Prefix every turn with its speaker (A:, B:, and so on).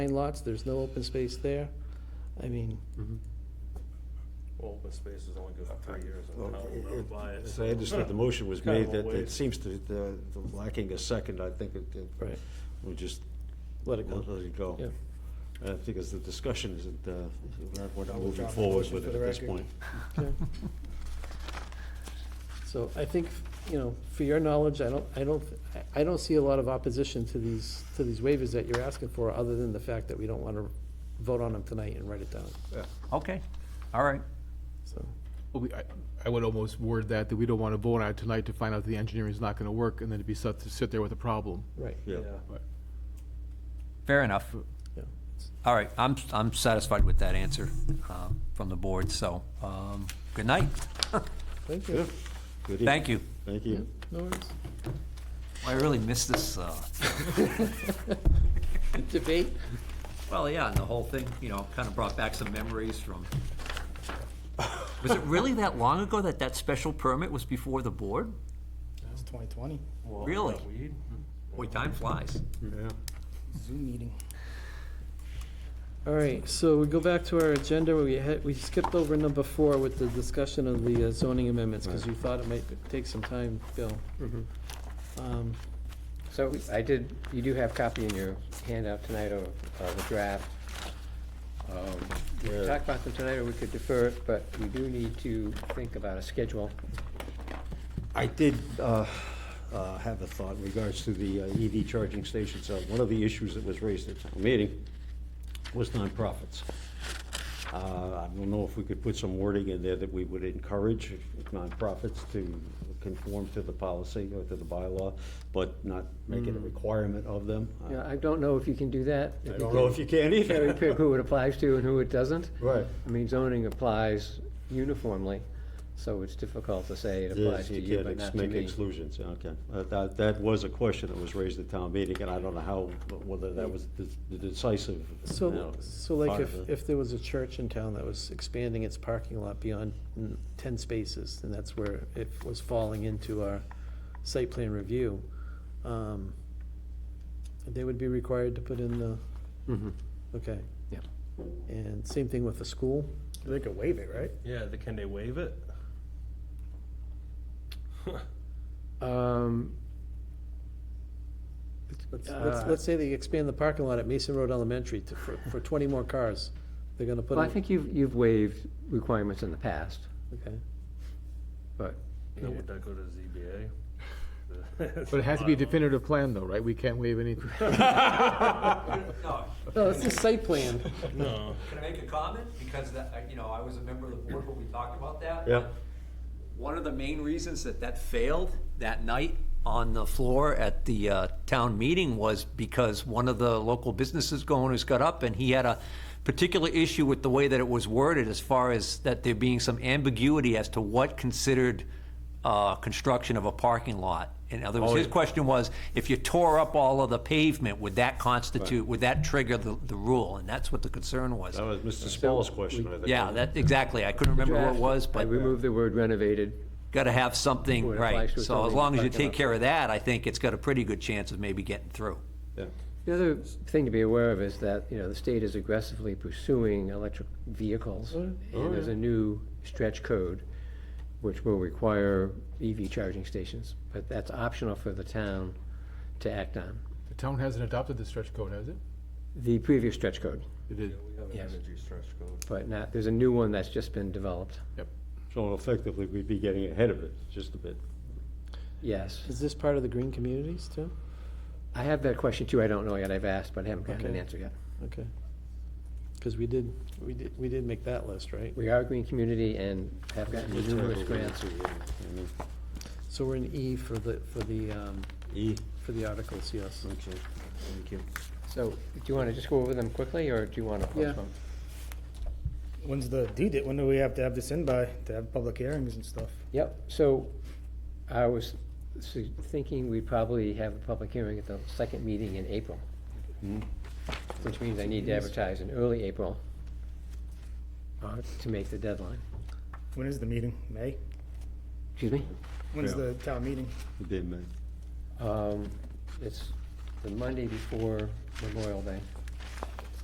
A: nine lots, there's no open space there. I mean,
B: Open space is only good for three years.
C: Well,
B: I'll
C: it-
B: run by it,
C: it- As
B: so-
C: I understood, the motion was
B: Kind of
C: made
B: a
C: that it
B: waste.
C: seems to, the the lacking a second, I think it, it-
A: right,
C: we just
A: let it
C: let
A: go.
C: it go.
A: Yeah.
C: And I think as the discussion isn't, uh, we're
D: I
C: not
D: will
C: moving
D: drop the
C: forward
D: motion
C: with
D: for
C: it
D: the
C: at this
D: record.
C: point.
A: Okay. So I think, you know, for your knowledge, I don't, I don't, I- I don't see a lot of opposition to these, to these waivers that you're asking for, other than the fact that we don't want to vote on them tonight and write it down,
E: Okay, all right.
A: so.
F: Well, we, I, I would almost word that, that we don't want to vote on it tonight to find out the engineering is not going to work, and then to be set, to sit there with a problem.
A: Right.
C: Yeah.
E: Fair enough.
A: Yeah.
E: All right, I'm, I'm satisfied with that answer uh, from the board, so, um, good night.
A: Thank you.
C: Good evening.
E: Thank you.
C: Thank you.
A: No worries.
E: I really missed this, uh,
A: Debate?
E: well, yeah, and the whole thing, you know, kind of brought back some memories from, was it really that long ago that that special permit was before the board?
D: It's 2020,
B: Well,
E: Really?
B: uh, Weed?
E: Boy, time flies.
D: Zoom meeting.
A: All right, so we go back to our agenda, where we had, we skipped over number four with the discussion of the uh, zoning amendments, because you thought it might take some time, Bill. Um,
G: So I did, you do have copy in your handout tonight of of the draft. Um, We could talk about them tonight, or we could defer it, but we do need to think about a schedule.
C: I did uh, uh, have a thought in regards to the uh, EV charging stations. Uh, One of the issues that was raised at the meeting was nonprofits. Uh, I don't know if we could put some wording in there that we would encourage nonprofits to conform to the policy or to the bylaw, but not make it a requirement of them. I
G: Yeah, I don't know if you can do that.
C: I don't know if you can
G: Cherry
C: either.
G: pick who it applies to and who it doesn't.
C: Right.
G: I mean, zoning applies uniformly, so it's difficult to say it applies
C: Yes,
G: to
C: you
G: you,
C: can't
G: but not
C: ex-
G: to
C: make
G: me.
C: exclusions, okay. Uh, That, that was a question that was raised at town meeting, and I don't know how, whether that was the- the decisive. you know,
A: So, so like
C: part
A: if,
C: of it.
A: if there was a church in town that was expanding its parking lot beyond mm, ten spaces, and that's where it was falling into our site plan review, um, they would be required to put in the, okay.
G: Mm-hmm. Yeah.
A: And same thing with the school,
D: They could waive it, right?
B: Yeah, the- can they waive it?
G: Um,
A: let's, let's,
G: Uh,
A: let's say they expand the parking lot at Mason Road Elementary to, for, for twenty more cars, they're gonna put
G: Well,
A: in.
G: I think you've, you've waived requirements in the past,
A: Okay,
G: but
B: Now, would that go to ZBA?
F: But it has to be a definitive plan, though, right? We can't waive anything.
A: no, it's the site plan.
B: No.
E: Can I make a comment? Because that, I- you know, I was a member of the board when we talked about that.
C: Yeah.
E: One of the main reasons that that failed that night on the floor at the uh, town meeting was because one of the local businesses owners got up and he had a particular issue with the way that it was worded as far as that there being some ambiguity as to what considered uh, construction of a parking lot. In other words, his question was, if you tore up all of the pavement, would that constitute, would that trigger the, the rule? And that's what the concern was.
C: That was Mr. Spall's question, I think.
E: Yeah, that, exactly. I couldn't remember what it was,
G: I
E: but uh,
G: removed the word renovated.
E: got to have something,
G: Where it applies
E: right.
G: to
E: So as
G: zoning,
E: long as you
G: talking
E: take
G: about-
E: care of that, I think it's got a pretty good chance of maybe getting through.
C: Yeah.
G: The other thing to be aware of is that, you know, the state is aggressively pursuing electric
A: Oh,
G: vehicles. And there's a new stretch code which will require EV charging stations, but that's optional for the town to act on.
F: The town hasn't adopted the stretch code, has it?
G: The previous stretch code,
F: It did.
B: We have an
G: Yes.
B: energy stretch code.
G: but not, there's a new one that's just been developed,
C: So effectively, we'd be getting ahead of it just a bit.
G: yes.
A: Is this part of the green communities too?
G: I have that question too, I don't know yet, I've asked, but I haven't gotten an
A: Okay.
G: answer yet.
A: Okay. Because we did, we did, we did make that list, right?
G: We are a green community and have gotten numerous grants.
A: So we're in E for the, for the, um,
C: E,
A: for the articles, yes.
C: okay, thank you.
G: So, do you want to just go over them quickly, or do you want to
A: Yeah.
G: postpone?
D: When's the deed, when do we have to have this in by, to have public hearings and stuff?
G: Yep, so I was su- thinking we'd probably have a public hearing at the second meeting in April. Mm-hmm. Which means I need to advertise in early April uh, to make the deadline.
D: When is the meeting? May?
G: Excuse me?
D: When's
C: Yeah.
D: the town meeting?
C: Good day, man.
G: Um, It's the Monday before Memorial Day.